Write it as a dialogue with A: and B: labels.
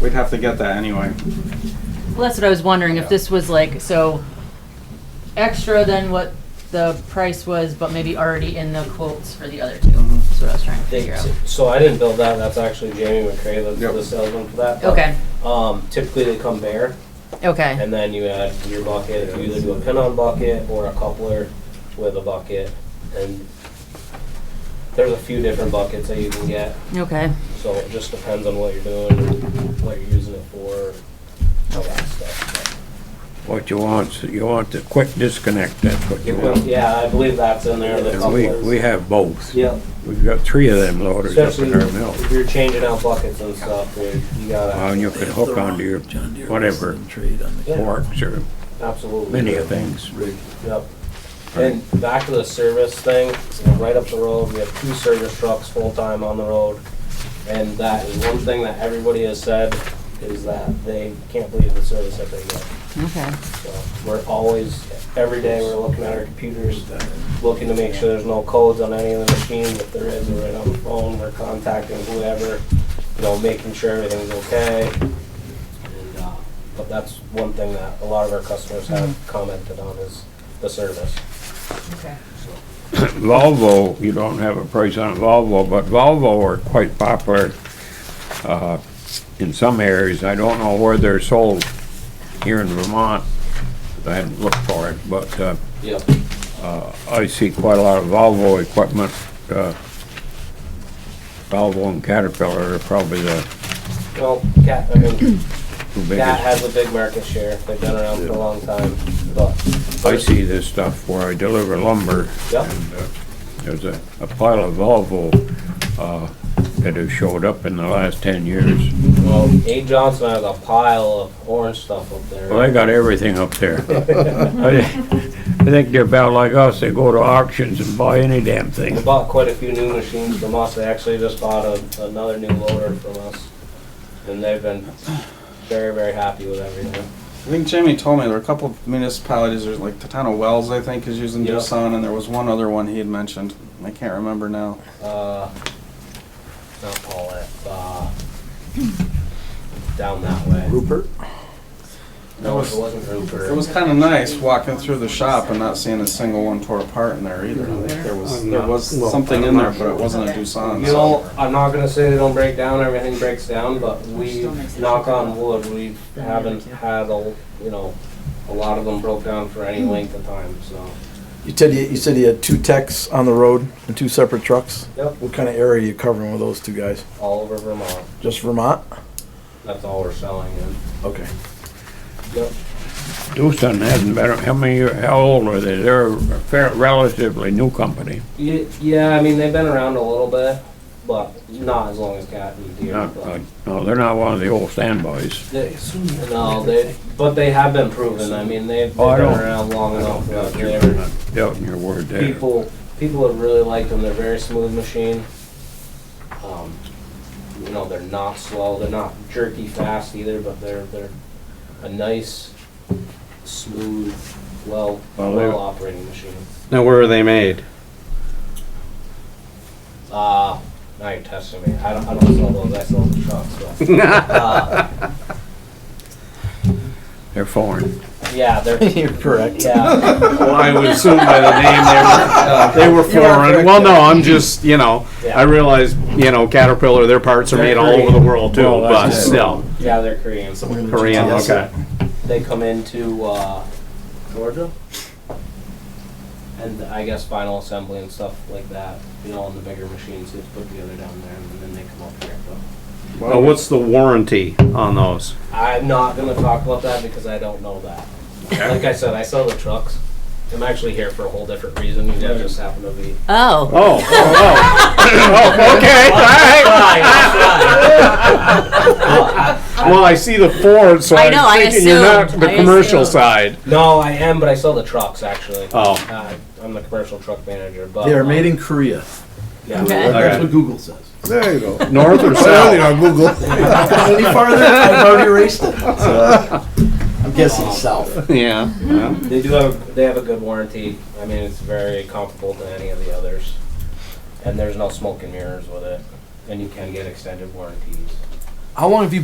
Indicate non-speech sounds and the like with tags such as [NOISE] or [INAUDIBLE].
A: We'd have to get that anyway.
B: Well, that's what I was wondering,
A: Yeah.
B: if this was like, so extra than what the price was, but maybe already in the quotes for the other two.
A: Mhm.
B: That's what I was trying to
C: They,
B: figure out.
C: so I didn't build that. That's actually Jamie McCray, that's
A: Yep.
C: the salesman for that. But,
B: Okay,
C: Um, typically they come bare,
B: okay,
C: and then you add your bucket. You either do a pin-on bucket or a coupler with a bucket, and there's a few different buckets that you can get.
B: okay.
C: So it just depends on what you're doing, what you're using it for, all that stuff.
D: What you want, so you want the quick disconnect, that's what you
C: But,
D: want.
C: Yeah, I believe that's in there. The
D: And we,
C: couplers.
D: we have both.
C: Yep.
D: We've got three of them loaded up
C: Especially
D: in our mill.
C: if you're changing out buckets and stuff, dude, you gotta.
D: Well, and you could hook onto your whatever
C: Yeah.
D: forks or
C: Absolutely.
D: many of things.
C: Yep. And back to the service thing, you know, right up the road, we have two service trucks full-time on the road. And that is one thing that everybody has said, is that they can't believe the service that they get.
B: Okay.
C: So We're always, every day, we're looking at our computers, looking to make sure there's no codes on any of the machines. If there is, we're right on the phone, we're contacting whoever, you know, making sure everything's okay. And, uh, But that's one thing that a lot of our customers have
D: Mm-hmm.
C: commented on is the service.
B: Okay.
D: Volvo, you don't have a price on Volvo, but Volvo are quite popular uh, in some areas. I don't know where they're sold here in Vermont. I hadn't looked for it, but uh,
C: Yep.
D: I see quite a lot of Volvo equipment. uh, Volvo and Caterpillar are probably the
C: Well, Cat, I mean,
D: two
C: Cat
D: biggest.
C: has a big market share. They've been around for a long time, but.
D: I see this stuff where I deliver lumber.
C: Yep.
D: and uh, There's a a pile of Volvo uh, that have showed up in the last 10 years.
C: Well, Abe Johnson has a pile of orange stuff up there.
D: Well, they got everything up
C: [LAUGHS]
D: there. I I think they're about like us, they go to auctions and buy any damn
C: They
D: thing.
C: bought quite a few new machines from us. They actually just bought a, another new loader from us. And they've been very, very happy with everything.
A: I think Jamie told me there were a couple of municipalities, there's like the town of Wells, I think, is using
C: Yeah.
A: Doosan, and there was one other one he had mentioned. I can't remember now.
C: Uh, not Paulette, uh, down that way.
E: Rupert?
C: No, it wasn't Rupert.
A: It was kind of nice walking through the shop and not seeing a single one tore apart in there either. I think There was, there was something in there, but it wasn't a Doosan.
C: You
A: so-
C: know, I'm not gonna say they don't break down, everything breaks down, but we, knock on wood, we haven't had a, you know, a lot of them broke down for any length of time, so.
E: uh, You said, you you said you had two techs on the road and two separate trucks?
C: Yep,
E: What kind of area are you covering with those two guys?
C: all over Vermont.
E: Just Vermont?
C: That's all we're selling in.
E: Okay.
C: Yep.
D: Doosan hasn't been, how many, year- how old are they? They're a fair- relatively new company.
C: Ye- Yeah, I mean, they've been around a little bit, but not as long as Cat and Deer.
D: Not,
C: but-
D: like- no, they're not one of the old standbys.
C: They- No, they, but they have been proven. I mean, they've they've been
D: Oh, I don't-
C: around long
D: I
C: enough. that
D: don't doubt you-
C: they're-
D: I'm not Doubting your word there.
C: People, people have really liked them. They're a very smooth machine. Um, You know, they're not slow, they're not jerky fast either, but they're, they're a nice, smooth, well,
D: Well, they-
C: well-operating machine.
F: Now, where are they made?
C: Uh, now you're testing me. I don't, I don't sell those. I sell the trucks.
F: [LAUGHS]
C: But, uh,
D: They're foreign.
C: yeah, they're
E: [LAUGHS] You're correct.
C: yeah.
F: Well, I would assume by the name [LAUGHS] they were, uh, they were foreign. Well, no, I'm just, you know, I realize, you know, Caterpillar, their parts are made all over the world too,
D: Well,
F: but
D: that's it.
F: still.
C: Yeah, they're Korean.
F: Korean,
E: Yes.
F: okay. [LAUGHS]
C: They come into uh, Georgia, and I guess final assembly and stuff like that. You know, on the bigger machines, it's put together down there, and then they come up here. But
F: Now, what's the warranty on those?
C: I'm not gonna talk about that because I don't know that. Like I said, I sell the trucks. I'm actually here for a whole different reason. You guys just happen to be.
B: Oh,
F: Oh, oh, oh. Oh, okay, all right. Well, I see the Ford, so
B: I know, I
F: I'm thinking you're not
B: assumed,
F: the
B: I
F: commercial
B: assumed.
F: side.
D: [LAUGHS]
C: No, I am, but I sell the trucks actually.
F: Oh.
C: Uh, I'm the commercial truck manager, but
E: They are
C: um,
E: made in Korea.
C: Yeah.
B: okay.
E: That's what Google says.
G: There you go.
F: North or south?
G: Google.
E: Any farther, [LAUGHS] I've already erased it. [LAUGHS] So, I'm guessing south.
F: [LAUGHS] Yeah. yeah.
C: They do have they have a good warranty. I mean, it's very comparable to any of the others, and there's no smoke and mirrors with it, and you can get extended warranties.
E: How long have you